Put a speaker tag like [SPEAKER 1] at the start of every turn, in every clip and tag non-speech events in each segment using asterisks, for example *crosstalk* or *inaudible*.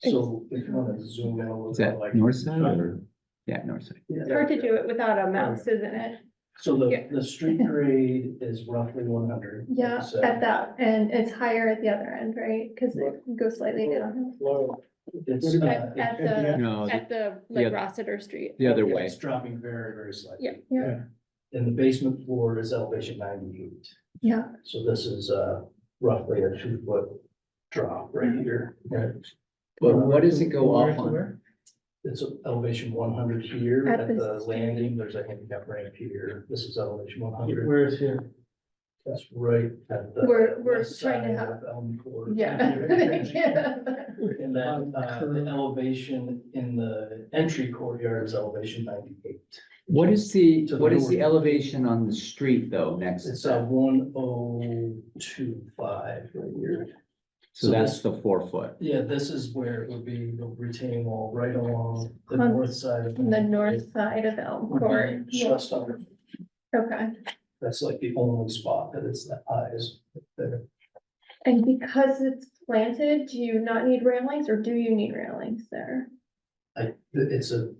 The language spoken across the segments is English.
[SPEAKER 1] So if you wanna zoom in a little
[SPEAKER 2] Is
[SPEAKER 1] bit,
[SPEAKER 2] that
[SPEAKER 1] like.
[SPEAKER 2] north side or? Yeah, north side.
[SPEAKER 1] Yeah,
[SPEAKER 3] It's hard to do it without a mouse, isn't it?
[SPEAKER 1] So the,
[SPEAKER 3] yeah.
[SPEAKER 1] the
[SPEAKER 3] *laughs*
[SPEAKER 1] street grade is roughly one hundred.
[SPEAKER 3] Yeah, at that, and it's higher at the other end, right? Cause it goes slightly down.
[SPEAKER 1] It's, uh,
[SPEAKER 3] At, at
[SPEAKER 1] it- it-
[SPEAKER 3] the,
[SPEAKER 2] No, the-
[SPEAKER 3] at the,
[SPEAKER 2] Uh, yeah.
[SPEAKER 3] like Rossiter Street.
[SPEAKER 2] the other
[SPEAKER 1] yeah,
[SPEAKER 2] way.
[SPEAKER 1] It's dropping very, very slightly.
[SPEAKER 3] Yeah, yeah,
[SPEAKER 1] And the basement floor is elevation ninety-eight.
[SPEAKER 3] yeah.
[SPEAKER 1] So this is uh roughly a two foot drop right
[SPEAKER 3] Mm-hmm.
[SPEAKER 1] here. Right.
[SPEAKER 2] But what does it go
[SPEAKER 4] Where
[SPEAKER 2] off
[SPEAKER 4] to
[SPEAKER 2] on?
[SPEAKER 4] where?
[SPEAKER 1] It's elevation one hundred here
[SPEAKER 3] At
[SPEAKER 1] at
[SPEAKER 3] the
[SPEAKER 1] the
[SPEAKER 3] street.
[SPEAKER 1] landing. There's a handicap ramp here. This is elevation one hundred.
[SPEAKER 4] Where is here?
[SPEAKER 1] That's right at the.
[SPEAKER 3] We're- we're
[SPEAKER 1] west
[SPEAKER 3] trying to
[SPEAKER 1] side
[SPEAKER 3] have-
[SPEAKER 1] of Elm Court. *laughs*
[SPEAKER 3] Yeah.
[SPEAKER 1] And then uh the elevation in the entry courtyard is elevation ninety-eight.
[SPEAKER 2] What is the,
[SPEAKER 1] To the
[SPEAKER 2] what is the
[SPEAKER 1] north.
[SPEAKER 2] elevation on the street though, next to
[SPEAKER 1] It's uh, a
[SPEAKER 2] that?
[SPEAKER 1] one oh two five right here.
[SPEAKER 2] So that's the four foot.
[SPEAKER 1] Yeah, this is where it would be the retaining wall right along the
[SPEAKER 3] On
[SPEAKER 1] north side of.
[SPEAKER 3] *laughs* The north side of Elm Court. Yeah,
[SPEAKER 1] Mm-hmm. Just under,
[SPEAKER 3] Okay.
[SPEAKER 1] that's like the only spot that it's that high is there.
[SPEAKER 3] And because it's planted, do you not need railings or do you need railings there?
[SPEAKER 1] I, it's a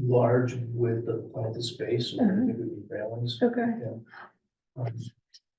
[SPEAKER 1] large width of planted space, so
[SPEAKER 3] Uh-huh.
[SPEAKER 1] it would be railings.
[SPEAKER 3] Okay.
[SPEAKER 1] Um,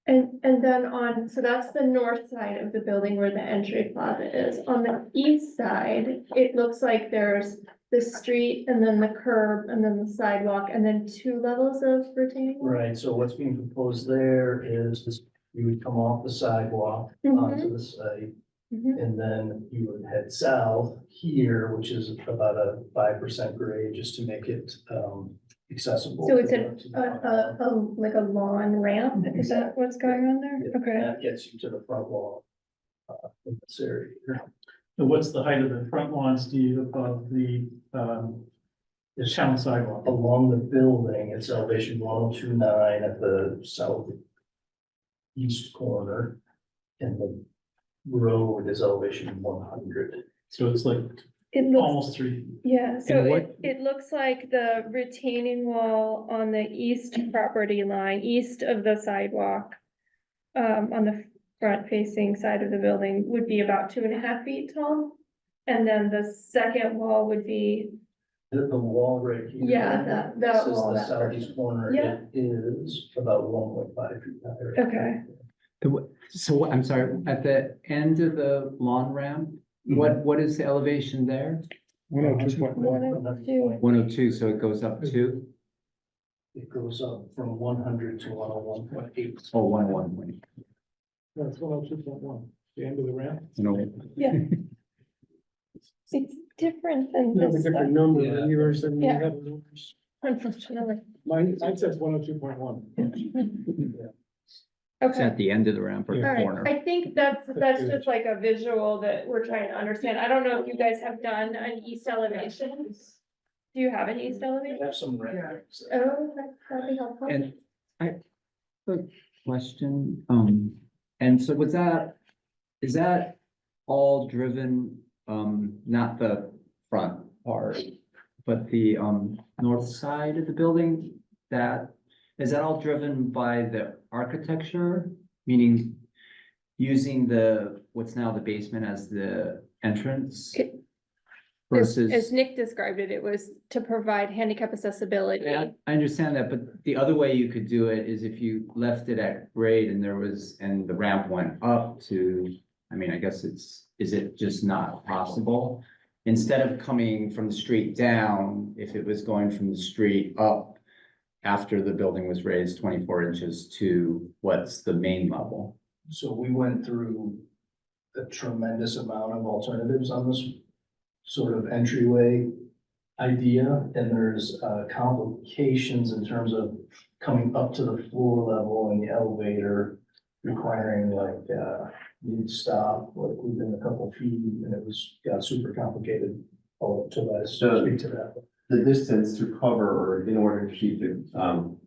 [SPEAKER 3] And, and then on, so that's the north side of the building where the entry plaza is. On the east side, it looks like there's the street and then the curb and then the sidewalk and then two levels of retaining. wall.
[SPEAKER 1] Right, so what's being proposed there is this- you would come off the sidewalk
[SPEAKER 3] Mhm,
[SPEAKER 1] onto the site,
[SPEAKER 3] mhm.
[SPEAKER 1] and then you would head south here, which is about a five percent grade, just to make it um accessible.
[SPEAKER 3] So
[SPEAKER 1] to
[SPEAKER 3] it's
[SPEAKER 1] the-
[SPEAKER 3] an-
[SPEAKER 1] to
[SPEAKER 3] A,
[SPEAKER 1] the front
[SPEAKER 3] Uh, a, a, like a lawn ramp, is that what's going on there?
[SPEAKER 1] Yeah.
[SPEAKER 3] Okay.
[SPEAKER 1] That gets you to the front wall. uh, In this area. here.
[SPEAKER 4] And what's the height of the front lawn, Steve, above the, um, the town sidewalk?
[SPEAKER 1] Along the building, it's elevation one oh two nine at the south. East corner. And the road is elevation one hundred.
[SPEAKER 4] So it's like
[SPEAKER 3] It looks,
[SPEAKER 4] almost three.
[SPEAKER 3] yeah, so
[SPEAKER 2] And
[SPEAKER 3] it,
[SPEAKER 2] what-
[SPEAKER 3] it looks like the retaining wall on the east property line, east of the sidewalk. Um, on the front facing side of the building would be about two and a half feet tall. And then the second wall would be,
[SPEAKER 1] The, the wall right here.
[SPEAKER 3] Yeah, that- that
[SPEAKER 1] This is
[SPEAKER 3] wall,
[SPEAKER 1] the
[SPEAKER 3] that part.
[SPEAKER 1] southeast corner.
[SPEAKER 3] Yeah.
[SPEAKER 1] It is about one point five feet higher.
[SPEAKER 3] okay,
[SPEAKER 2] The wh- So what- I'm sorry, at the end of the lawn ramp, what, what is the elevation there?
[SPEAKER 5] One oh two, what,
[SPEAKER 3] One oh two.
[SPEAKER 2] One oh two, so it goes up to,
[SPEAKER 1] It goes up from one hundred to one oh one point eight.
[SPEAKER 2] oh, one oh one point.
[SPEAKER 5] that's one oh two point one, the end of the ramp?
[SPEAKER 2] you know.
[SPEAKER 3] it's different than
[SPEAKER 5] No, the
[SPEAKER 3] this,
[SPEAKER 5] different
[SPEAKER 3] one,
[SPEAKER 5] number
[SPEAKER 1] Yeah.
[SPEAKER 5] of years than you
[SPEAKER 3] Yeah.
[SPEAKER 5] have.
[SPEAKER 3] unfortunately,
[SPEAKER 5] Mine, mine says one oh two point one.
[SPEAKER 2] It's
[SPEAKER 3] okay.
[SPEAKER 2] at the end of the ramp or
[SPEAKER 5] Yeah.
[SPEAKER 3] All
[SPEAKER 2] the corner.
[SPEAKER 3] right, I think that's, that's just like a visual that we're trying to understand. I don't know if you guys have done an east elevation. Do you have an east
[SPEAKER 1] We
[SPEAKER 3] elevation?
[SPEAKER 1] have some renderings.
[SPEAKER 3] Oh, that- that'd be helpful.
[SPEAKER 2] And I, the question, um, and so was that, is that all driven, um, not the front part, but the, um, north side of the building? That, is that all driven by the architecture, meaning using the, what's now the basement as the entrance?
[SPEAKER 3] It- As as
[SPEAKER 2] Versus,
[SPEAKER 3] Nick described it, it was to provide handicap accessibility.
[SPEAKER 2] Yeah, I understand that, but the other way you could do it is if you left it at grade and there was, and the ramp went up to, I mean, I guess it's, is it just not possible? Instead of coming from the street down, if it was going from the street up after the building was raised twenty-four inches to what's the main level?
[SPEAKER 1] So we went through a tremendous amount of alternatives on this sort of entryway idea, and there's uh, complications in terms of coming up to the floor level in the elevator requiring like, uh, you'd stop, like within a couple feet, and it was, got super complicated. Oh, to let us
[SPEAKER 6] So-
[SPEAKER 1] speak to that.
[SPEAKER 6] the distance to cover or in order to keep the, um,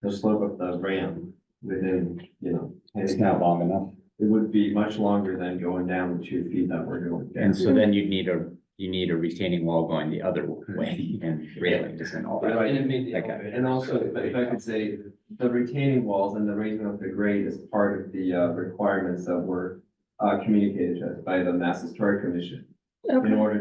[SPEAKER 6] the slope of the ramp within, you know,
[SPEAKER 2] It's not
[SPEAKER 6] handicap,
[SPEAKER 2] long enough.
[SPEAKER 6] it would be much longer than going down the two feet that we're going down.
[SPEAKER 2] And so then you'd need a, you need a retaining wall going the other way and railings and all that.
[SPEAKER 6] Right.
[SPEAKER 1] And it made the
[SPEAKER 2] Okay.
[SPEAKER 1] elevator.
[SPEAKER 6] And also, if I- if I could say, the retaining walls and the raising of the grade is part of the, uh, requirements that were, uh, communicated to us by the Mass Historic Commission
[SPEAKER 3] Okay.
[SPEAKER 6] in order